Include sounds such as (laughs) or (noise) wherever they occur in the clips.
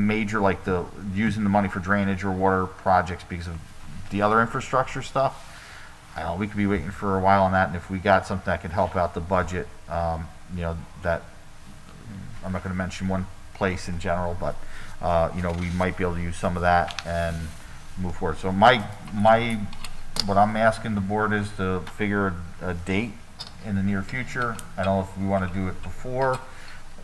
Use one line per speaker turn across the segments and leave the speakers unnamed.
major like the using the money for drainage or water projects because of the other infrastructure stuff. I don't, know, we could be waiting for a while on that, and if we got something that could help out the budget, um, you know, that, I'm not gonna mention one place in general, but, uh, you know, we might be able to use some of that and move forward. So my, my, what I'm asking the board is to figure a, a date in the near future. I don't know if we wanna do it before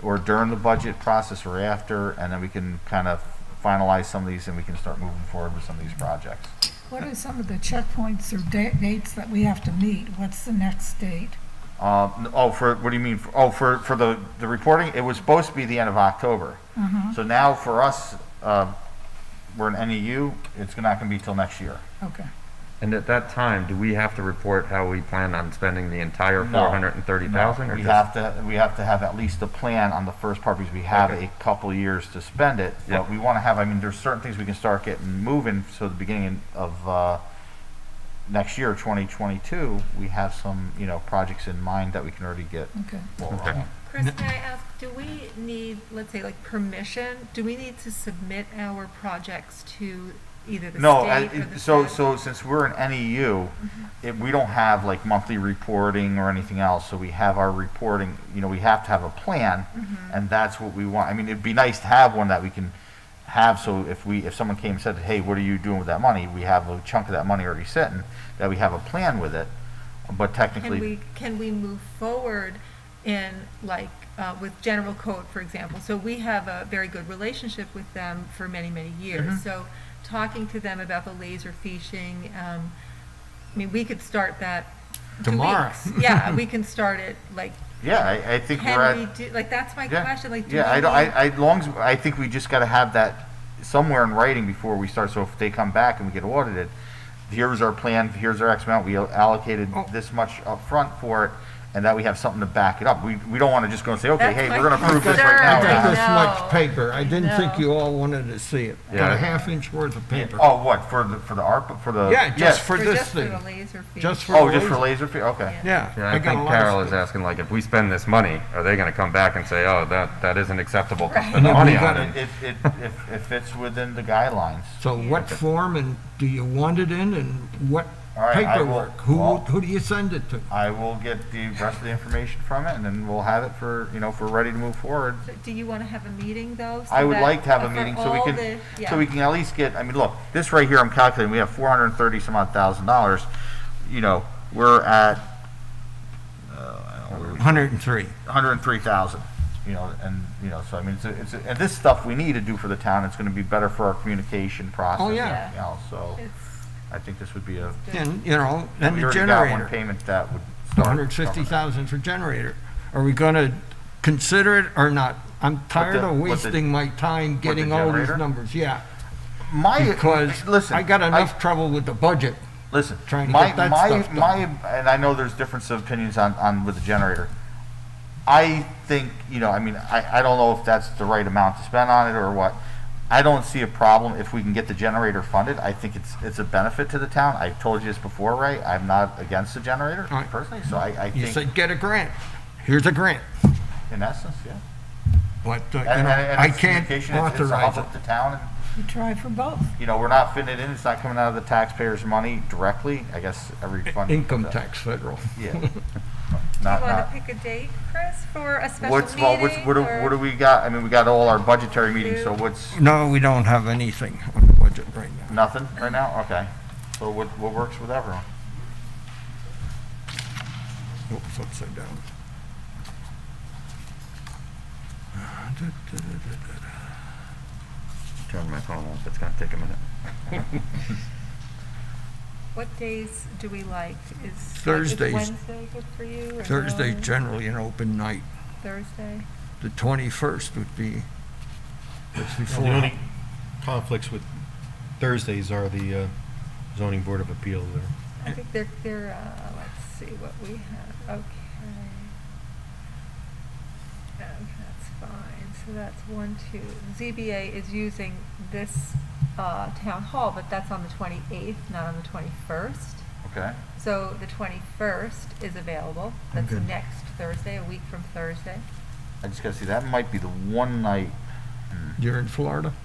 or during the budget process or after, and then we can kind of finalize some of these and we can start moving forward with some of these projects.
What are some of the checkpoints or da- dates that we have to meet? What's the next date?
Um, n- oh, for, what do you mean? For- Oh, for, for the, the reporting, it was supposed to be the end of October. So now for us, uh, we're an NEU, it's not gonna be till next year.
Okay.
And at that time, do we have to report how we plan on spending the entire
No.
four hundred and thirty thousand?
We have to, we have to have at least a plan on the first part because we have
Okay.
a couple years to spend it.
Yeah.
But we wanna have, I mean, there's certain things we can start getting moving, so the beginning of, uh, next year, twenty twenty-two, we have some, you know, projects in mind that we can already get.
Okay.
rolling
Okay.
on.
Chris, can I ask, do we need, let's say, like permission? Do we need to submit our projects to either the
No, I-
state or the Mm-hmm.
so,
fed?
so since we're an NEU, it, we don't have like monthly reporting or anything else, so we have our reporting, you know, we have to have a plan,
Mm-hmm.
and that's what we want, I mean, it'd be nice to have one that we can have, so if we, if someone came and said, hey, what are you doing with that money, we have a chunk of that money already sitting, that we have a plan with it, but
Can
technically,
we, can we move forward in like, uh, with general code, for example? So we have a very good relationship with them for many, many
Mm-hmm.
years. So talking to them about the laser fishing, um, I mean, we could start that two
Tomorrow.
weeks.
(laughs)
Yeah, we can start it like,
yeah, I, I think we're
can we
at,
do, like, that's my
yeah.
question, like, do we
Yeah, I, don't-
need-
I, I, long as, I think we just gotta have that somewhere in writing before we start, so if they come back and we get audited, here's our plan, here's our X amount, we allocated
Oh.
this much upfront for it, and that we have something to back it up. We, we don't wanna just go and say, okay,
That's
hey,
my
we're gonna approve this right
concern.
now.
I
we're
got
not."
this
No.
much paper. I didn't think
No.
you all wanted to see it. Got
Yeah.
a half inch worth of paper.
Oh, what, for the, for the ARPA, for the?
Yeah, just for
Or
this
just for
thing.
the laser feed?
Just for.
Oh, just for
laser-
laser, fe- okay.
Yeah.
Yeah, I
got a
think
lot of
Carol is
stuff.
asking, like, if we spend this money, are they gonna come back and say, oh, that, that isn't acceptable to
Right.
spend the money
we
on
gotta-
it?
It, it, if, if it's within the guidelines.
So what form and do you want it in and what
All right, I will-
paperwork? Who,
well-
who do you send it to?
I will get the rest of the information from it, and then we'll have it for, you know, if we're ready to move forward,
So Do you want to have a meeting though? so
I would
that-
like to have a
for
meeting so we
all
can,
the-
so
yeah.
we can at least get, I mean, look, this right here, I'm calculating, we have four hundred and thirty some odd thousand dollars. You know, we're at, uh,
103.
hundred and three thousand, you know, and, you know, so I mean, it's, a- it's, a- and this stuff we need to do for the town, it's gonna be better for our communication process. and
Oh, yeah.
everything else. so
It's-
I think this would be a,
And, you know, and
we
the
already got one
generator.
payment that would start.
150,000 for generator. Are we going to consider it or not? I'm tired
the-
of
with the-
wasting my time
the
getting all these
generator?
numbers, yeah.
My,
Because
listen.
I got
I-
enough trouble with the budget.
Listen,
trying to
my,
get that
my,
stuff done.
my, and I know there's difference of opinions on, on with the generator. I think, you know, I mean, I, I don't know if that's the right amount to spend on it or what. I don't see a problem if we can get the generator funded. I think it's, it's a benefit to the town. I've told you this before, Ray. I'm not against the generator
All right.
personally, so I, I
You
think
said, get a grant. Here's a grant.
in essence, yeah.
But, uh, you
And,
know,
and, and
I
it's
can't
communication. It's- it's a
authorize
help
it.
of the town and
We try for both.
you know, we're not fitting it in. It's not coming out of the taxpayers' money directly. I guess every fund
Income tax federal. (laughs)
Yeah.
Do you
Not,
want
not,
to pick a date, Chris, for a special
What's, well, what's,
meeting?
what do,
or-
what do we got? I mean, we got all our budgetary meetings, so what's,
No, we don't have anything on the budget right now.
nothing right now? Okay. So what, what works with everyone?
Oops, upside down.
Turn my phone off, it's gonna take a minute.
What days do we like? Is- like, Is
Thursdays.
Wednesday good for you? or
Thursday
no?
generally an open night.
Thursday?
The 21st would be, that's
Well, The
before.
only conflicts with Thursdays are the uh, zoning board of appeal there.
I think they're, they're, uh, let's see what we have. Okay. Okay, that's fine. So that's one, two. ZBA is using this, uh, town hall, but that's on the twenty-eighth, not on the twenty-first.
Okay.
So the 21st is available.
I'm
That's
good.
next Thursday, a week from Thursday.
I just gotta see, that might be the one night
You're in Florida?